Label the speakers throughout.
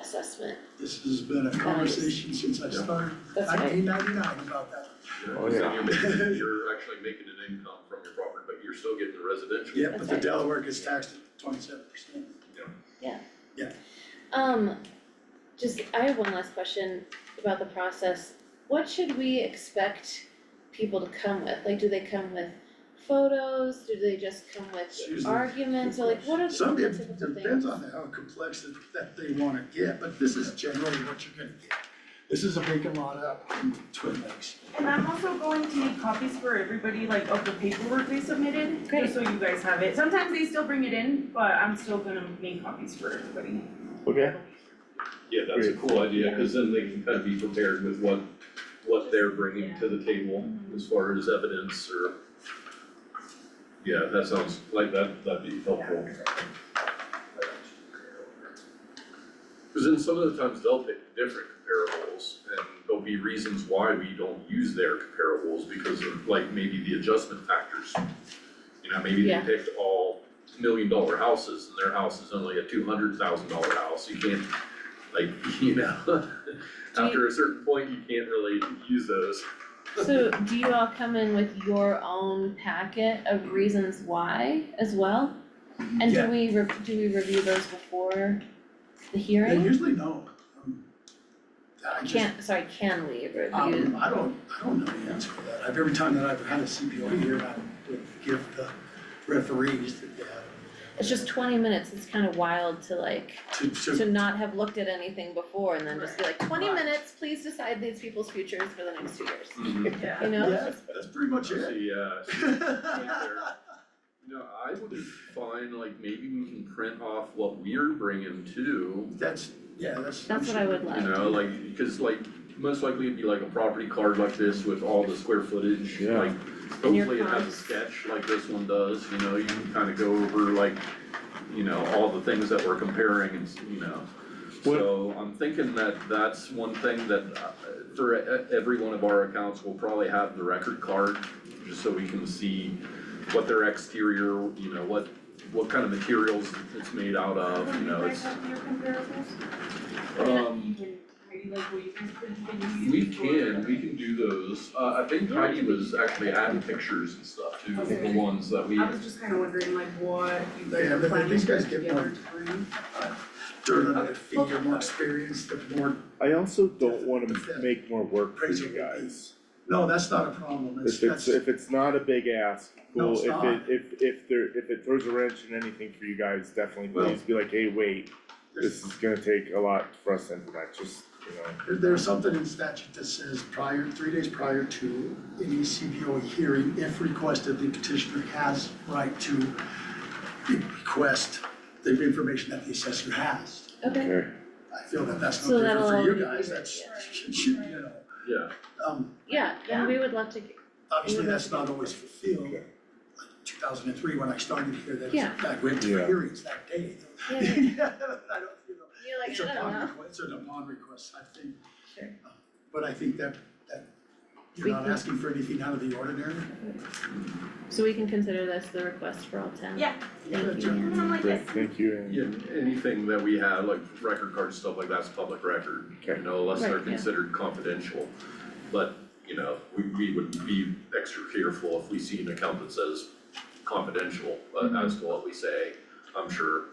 Speaker 1: assessment.
Speaker 2: This has been a conversation since I started
Speaker 1: That's right.
Speaker 2: nineteen ninety-nine about that.
Speaker 3: Yeah,
Speaker 4: Oh,
Speaker 3: and
Speaker 4: yeah.
Speaker 3: you're making, you're actually making an income from your property, but you're still getting the residential.
Speaker 2: Yeah, but the
Speaker 1: Okay.
Speaker 2: Delaware gets taxed at twenty-seven percent.
Speaker 1: Um, just, I have one last question about the process. What should we expect people to come with? Like, do they come with photos? Do they just come
Speaker 2: Choose
Speaker 1: with
Speaker 2: the-
Speaker 1: arguments? Or like, what are the
Speaker 2: Some,
Speaker 1: the
Speaker 2: it
Speaker 1: typical
Speaker 2: depends
Speaker 1: things?
Speaker 2: on how complex that, that they wanna get, but this is generally what you're gonna get. This is a vacant lot up in Twin Lakes.
Speaker 5: And I'm also going to make copies for everybody, like of the paperwork they submitted,
Speaker 1: Great.
Speaker 5: just so you guys have it. Sometimes they still bring it in, but I'm still gonna make copies for everybody.
Speaker 4: Okay,
Speaker 3: Yeah, that's a cool idea, cause then they can kind of be prepared with what, what they're bringing to the table as far as evidence or. Yeah, that sounds like that, that'd be helpful. Cause then some of the times they'll pick different comparables and there'll be reasons why we don't use their comparables because of like maybe the adjustment factors. You know, maybe they
Speaker 1: Yeah.
Speaker 3: picked all million dollar houses and their house is only a two hundred thousand dollar house, you can't, like, you know. After a certain point, you can't really use those.
Speaker 1: So do you all come in with your own packet of reasons why as well? And
Speaker 2: Yeah.
Speaker 1: do we, re- do we review those before the
Speaker 2: They
Speaker 1: hearing?
Speaker 2: usually don't. Um, I just-
Speaker 1: Can't, sorry, can we review?
Speaker 2: Um, I don't, I don't know the answer to that. I've, every time that I've had a CPO here, I would give the referees that they have
Speaker 1: It's just twenty minutes, it's kind of wild to like,
Speaker 2: to,
Speaker 1: to
Speaker 2: to,
Speaker 1: not have looked at anything before and then just be like, twenty
Speaker 2: Right.
Speaker 1: minutes, please decide these people's futures for the next two years,
Speaker 5: Yeah.
Speaker 1: you know?
Speaker 2: yeah, that's pretty much
Speaker 3: Let's
Speaker 2: it.
Speaker 3: see, uh, no, I would be fine, like, maybe we can print off what we're bringing too.
Speaker 2: That's, yeah, that's.
Speaker 1: That's what I would
Speaker 3: You
Speaker 1: love.
Speaker 3: know, like, cause like, most likely it'd be like a property card like this with all the square footage,
Speaker 4: Yeah.
Speaker 3: like,
Speaker 1: And your
Speaker 3: hopefully it has a
Speaker 1: comps.
Speaker 3: sketch like this one does, you know, you can kinda go over like, you know, all the things that we're comparing and, s- you know.
Speaker 4: What-
Speaker 3: So I'm thinking that that's one thing that uh, for e- every one of our accounts, we'll probably have the record card, just so we can see what their exterior, you know, what, what kind of materials it's made out of, you know, Uh, it's,
Speaker 5: Do you guys have your comparables?
Speaker 3: um.
Speaker 5: You can, maybe like what you can, can you
Speaker 3: We
Speaker 5: use for-
Speaker 3: can, we can do those, uh, I think Heidi was actually adding pictures and stuff too, of the ones that we,
Speaker 5: I was just kinda wondering like what you
Speaker 2: They
Speaker 5: guys
Speaker 2: have-
Speaker 5: are
Speaker 2: they-
Speaker 5: planning
Speaker 2: these
Speaker 5: to
Speaker 2: guys
Speaker 5: put
Speaker 2: get
Speaker 5: together
Speaker 2: more-
Speaker 5: to bring.
Speaker 2: During another fee, you're more experienced, the more,
Speaker 4: I also don't wanna make more work for you guys.
Speaker 2: no, that's not a problem. It's,
Speaker 4: If it's,
Speaker 2: that's,
Speaker 4: if it's not a big ask,
Speaker 2: No,
Speaker 4: cool,
Speaker 2: it's
Speaker 4: if it,
Speaker 2: not.
Speaker 4: if, if there, if it throws a wrench in anything for you guys, definitely
Speaker 2: Well-
Speaker 4: please be like, hey, wait,
Speaker 2: there's,
Speaker 4: this is gonna take a lot for us to implement, just, you know.
Speaker 2: there- there's something in statute that says prior, three days prior to any CPO hearing, if requested, the petitioner has right to request the information that the assessor has.
Speaker 1: Okay,
Speaker 4: Okay.
Speaker 2: I feel that that's
Speaker 1: So
Speaker 2: no different for
Speaker 1: that'll
Speaker 2: you
Speaker 1: be
Speaker 2: guys,
Speaker 1: great,
Speaker 2: that's, you know,
Speaker 3: yeah,
Speaker 2: um,
Speaker 1: yeah, then we would love to,
Speaker 2: obviously
Speaker 1: Yeah.
Speaker 2: that's not always fulfilled.
Speaker 4: Okay.
Speaker 2: Two thousand and three, when I started here, that was,
Speaker 1: Yeah.
Speaker 2: I went to
Speaker 4: Yeah.
Speaker 2: hearings that day.
Speaker 1: yeah,
Speaker 2: I
Speaker 1: you're
Speaker 2: don't, you know,
Speaker 1: like,
Speaker 2: it's a
Speaker 1: I don't
Speaker 2: upon
Speaker 1: know,
Speaker 2: request, it's an upon request type thing.
Speaker 1: Sure.
Speaker 2: But I think that, that you're
Speaker 1: We
Speaker 2: not
Speaker 1: can-
Speaker 2: asking for anything out of the ordinary.
Speaker 1: so we can consider this the request for all ten?
Speaker 5: Yeah.
Speaker 1: Thank
Speaker 2: Yeah.
Speaker 1: you, Ann.
Speaker 5: I'm like,
Speaker 4: Great,
Speaker 5: yes.
Speaker 4: thank you, and-
Speaker 3: yeah, anything that we have, like record cards, stuff like that's public record, you
Speaker 4: Okay.
Speaker 3: know, unless they're
Speaker 1: Right, yeah.
Speaker 3: considered confidential. But, you know, we, we would be extra careful if we see an account that says confidential, but
Speaker 1: Mm-hmm.
Speaker 3: as to what we say, I'm sure.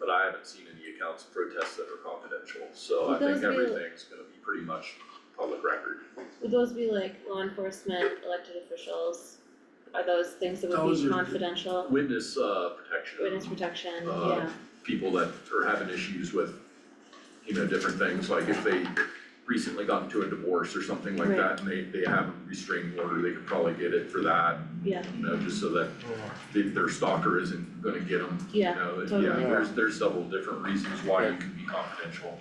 Speaker 3: But I haven't seen any accounts protest that are confidential, so
Speaker 1: Well,
Speaker 3: I think
Speaker 1: those will-
Speaker 3: everything's gonna be pretty much public record.
Speaker 1: Would those be like law enforcement, elected officials? Are those things that would
Speaker 2: Those
Speaker 1: be
Speaker 2: are-
Speaker 1: confidential,
Speaker 3: Witness, uh, protection.
Speaker 1: witness protection, yeah?
Speaker 3: Uh, people that are having issues with, you know, different things, like if they recently got into a divorce or something like
Speaker 1: Right.
Speaker 3: that, and they, they have a restraining order, they could probably get it for that.
Speaker 1: Yeah.
Speaker 3: You know, just so that the- their stalker isn't gonna get them, you
Speaker 1: Yeah,
Speaker 3: know, yeah,
Speaker 1: totally.
Speaker 3: there's, there's several different reasons why you can be confidential.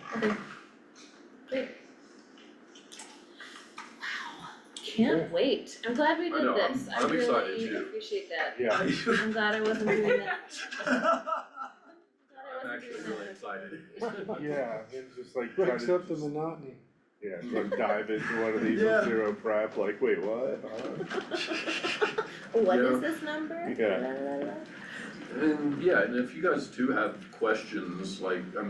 Speaker 1: Can't wait, I'm glad we
Speaker 3: I
Speaker 1: did
Speaker 3: know, I'm-
Speaker 1: this, I
Speaker 3: I'm excited
Speaker 1: really
Speaker 3: too.
Speaker 1: appreciate that.
Speaker 4: Yeah,
Speaker 1: I'm glad I wasn't doing that.
Speaker 3: I'm actually really excited.
Speaker 4: yeah, and just like try to.
Speaker 6: Breaks up the monotony.
Speaker 4: Yeah, like dive into one of these
Speaker 2: Yeah.
Speaker 4: with zero prep, like, wait, what? Huh?
Speaker 1: What
Speaker 3: Yeah.
Speaker 1: is this number?
Speaker 4: Yeah.
Speaker 1: La, la, la.
Speaker 3: And, yeah, and if you guys do have questions, like, I mean,